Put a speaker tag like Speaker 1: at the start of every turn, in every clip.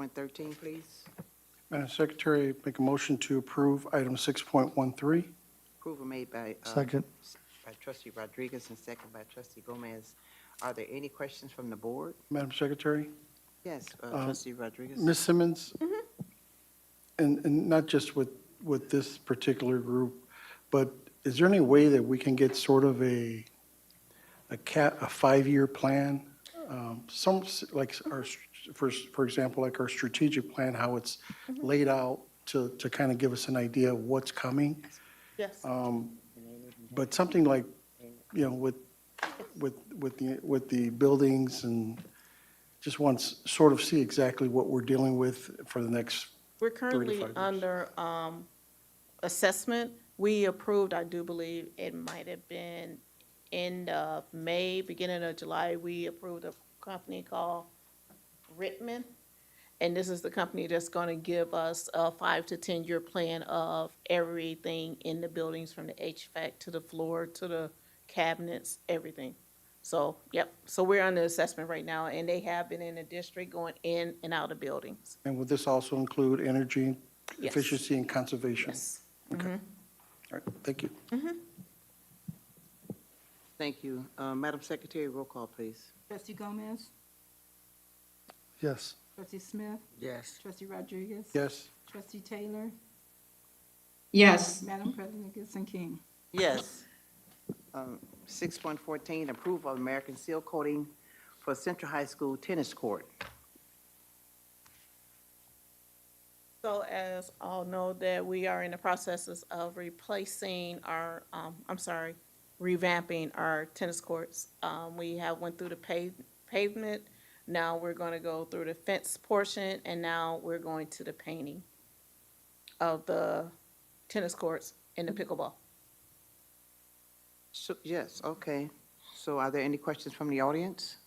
Speaker 1: Point thirteen, please.
Speaker 2: Madam Secretary, make a motion to approve item 6.13.
Speaker 1: Approval made by. uh,
Speaker 3: Second.
Speaker 1: By trustee Rodriguez and second by trustee Gomez. Are there any questions from the board?
Speaker 2: Madam Secretary,
Speaker 1: Yes, uh,
Speaker 2: Uh,
Speaker 1: trustee Rodriguez.
Speaker 2: Ms. Simmons? And, and not just with, with this particular group, but is there any way that we can get sort of a, a cat, a five-year plan? Um, Some, s- like our, st- for, for example, like our strategic plan, how it's laid out to, to kind of give us an idea of what's coming?
Speaker 4: Yes.
Speaker 2: But something like, you know, with, with, with the, with the buildings and just once, sort of see exactly what we're dealing with for the next,
Speaker 4: We're currently
Speaker 2: 35 years.
Speaker 4: under um, assessment. We approved, I do believe, it might have been end of May, beginning of July, we approved a company called Rittman. And this is the company that's going to give us a five to 10-year plan of everything in the buildings, from the HVAC to the floor to the cabinets, everything. So, yep, so we're under assessment right now, and they have been in the district going in and out of buildings.
Speaker 2: and would this also include energy
Speaker 4: Yes.
Speaker 2: efficiency and conservation?
Speaker 4: Yes.
Speaker 2: All right, thank you.
Speaker 1: Thank you. Uh, Madam Secretary, roll call, please.
Speaker 5: Trustee Gomez?
Speaker 2: Yes.
Speaker 5: Trustee Smith?
Speaker 1: Yes.
Speaker 5: Trustee Rodriguez?
Speaker 2: Yes.
Speaker 5: Trustee Taylor?
Speaker 6: Yes,
Speaker 5: Madam President, Gibson King.
Speaker 1: Yes. Um, Six point fourteen, approval of American seal coating for Central High School tennis court.
Speaker 4: So as all know that we are in the processes of replacing our, um, I'm sorry, revamping our tennis courts. Um, we have went through the pave, pavement, now we're gonna go through the fence portion, and now we're going to the painting of the tennis courts and the pickleball.
Speaker 1: So, yes, okay. So are there any questions from the audience?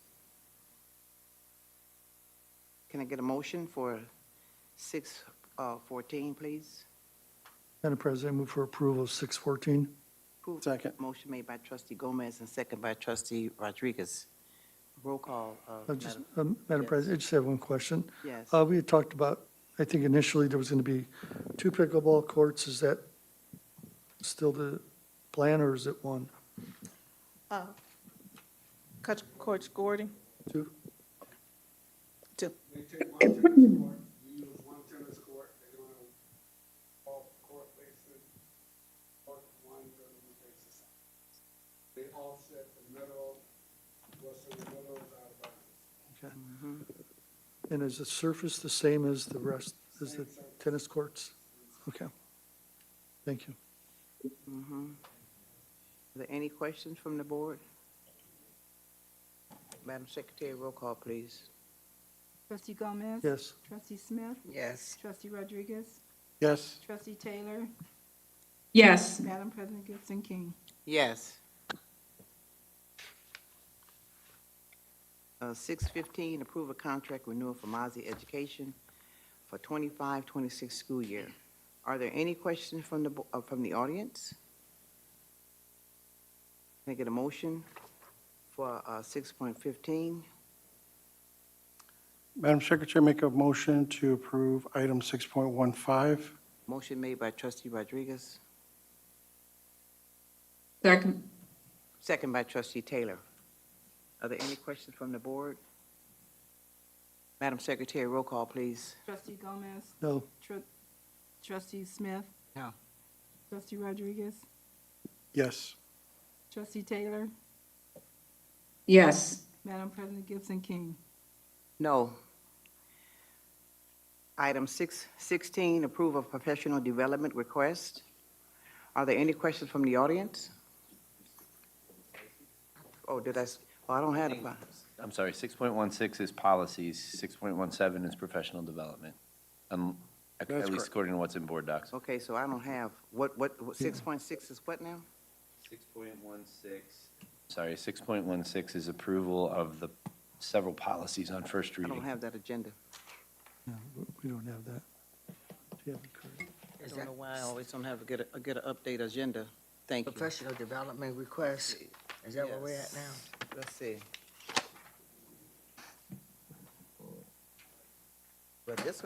Speaker 1: Can I get a motion for six, uh, fourteen, please?
Speaker 3: Madam President, move for approval of 614.
Speaker 1: Approve.
Speaker 2: Second.
Speaker 1: Motion made by trustee Gomez and second by trustee Rodriguez. Roll call, uh,
Speaker 3: Uh, just,
Speaker 1: Madam-
Speaker 3: um, Madam
Speaker 1: Yes.
Speaker 3: President, I just have one question.
Speaker 1: Yes.
Speaker 3: Uh, We had talked about, I think initially there was going to be two pickleball courts. Is that still the plan or is it one?
Speaker 4: Uh, Coach, Coach Gordon?
Speaker 3: Two?
Speaker 4: Two.
Speaker 7: They take one tennis court, they use one tennis court, they don't have all court bases, or one government basis. They offset the middle, what's in the middle is out of bounds.
Speaker 3: Okay. And is the surface the same as the rest, as the tennis courts? Okay. Thank you.
Speaker 1: Are there any questions from the board? Madam Secretary, roll call, please.
Speaker 5: Trustee Gomez?
Speaker 3: Yes.
Speaker 5: Trustee Smith?
Speaker 1: Yes.
Speaker 5: Trustee Rodriguez?
Speaker 2: Yes.
Speaker 5: Trustee Taylor?
Speaker 6: yes,
Speaker 5: Madam President, Gibson King.
Speaker 1: Yes. Uh, six fifteen, approve a contract renewal for Mozzie Education for 25-26 school year. Are there any questions from the, bo- uh, from the audience? Can I get a motion for, uh, six point fifteen?
Speaker 2: Madam Secretary, make a motion to approve item 6.15.
Speaker 1: Motion made by trustee Rodriguez,
Speaker 6: second,
Speaker 1: second by trustee Taylor. Are there any questions from the board? Madam Secretary, roll call, please.
Speaker 5: Trustee Gomez?
Speaker 3: No,
Speaker 5: Tru- Trustee Smith?
Speaker 1: No.
Speaker 5: Trustee Rodriguez?
Speaker 2: Yes.
Speaker 5: Trustee Taylor?
Speaker 6: yes,
Speaker 5: Madam President, Gibson King.
Speaker 1: No. Item six sixteen, approve of professional development request. Are there any questions from the audience? Oh, did I, s- oh, I don't have the,
Speaker 8: I'm sorry, 6.16 is policies, 6.17 is professional development, um, at
Speaker 2: That's
Speaker 8: at least
Speaker 2: correct.
Speaker 8: according to what's in board docs.
Speaker 1: okay, so I don't have, what, what, six point six is what now?
Speaker 8: 6.16. Sorry, 6.16 is approval of the several policies on first
Speaker 1: I don't
Speaker 8: reading.
Speaker 1: have that agenda.
Speaker 3: no, we don't have that. Do you have it correct?
Speaker 1: I don't know why I always don't have a good, a good update agenda. Thank you.
Speaker 9: Professional development request, is that where we're at
Speaker 1: Yes.
Speaker 9: now?
Speaker 1: Let's see.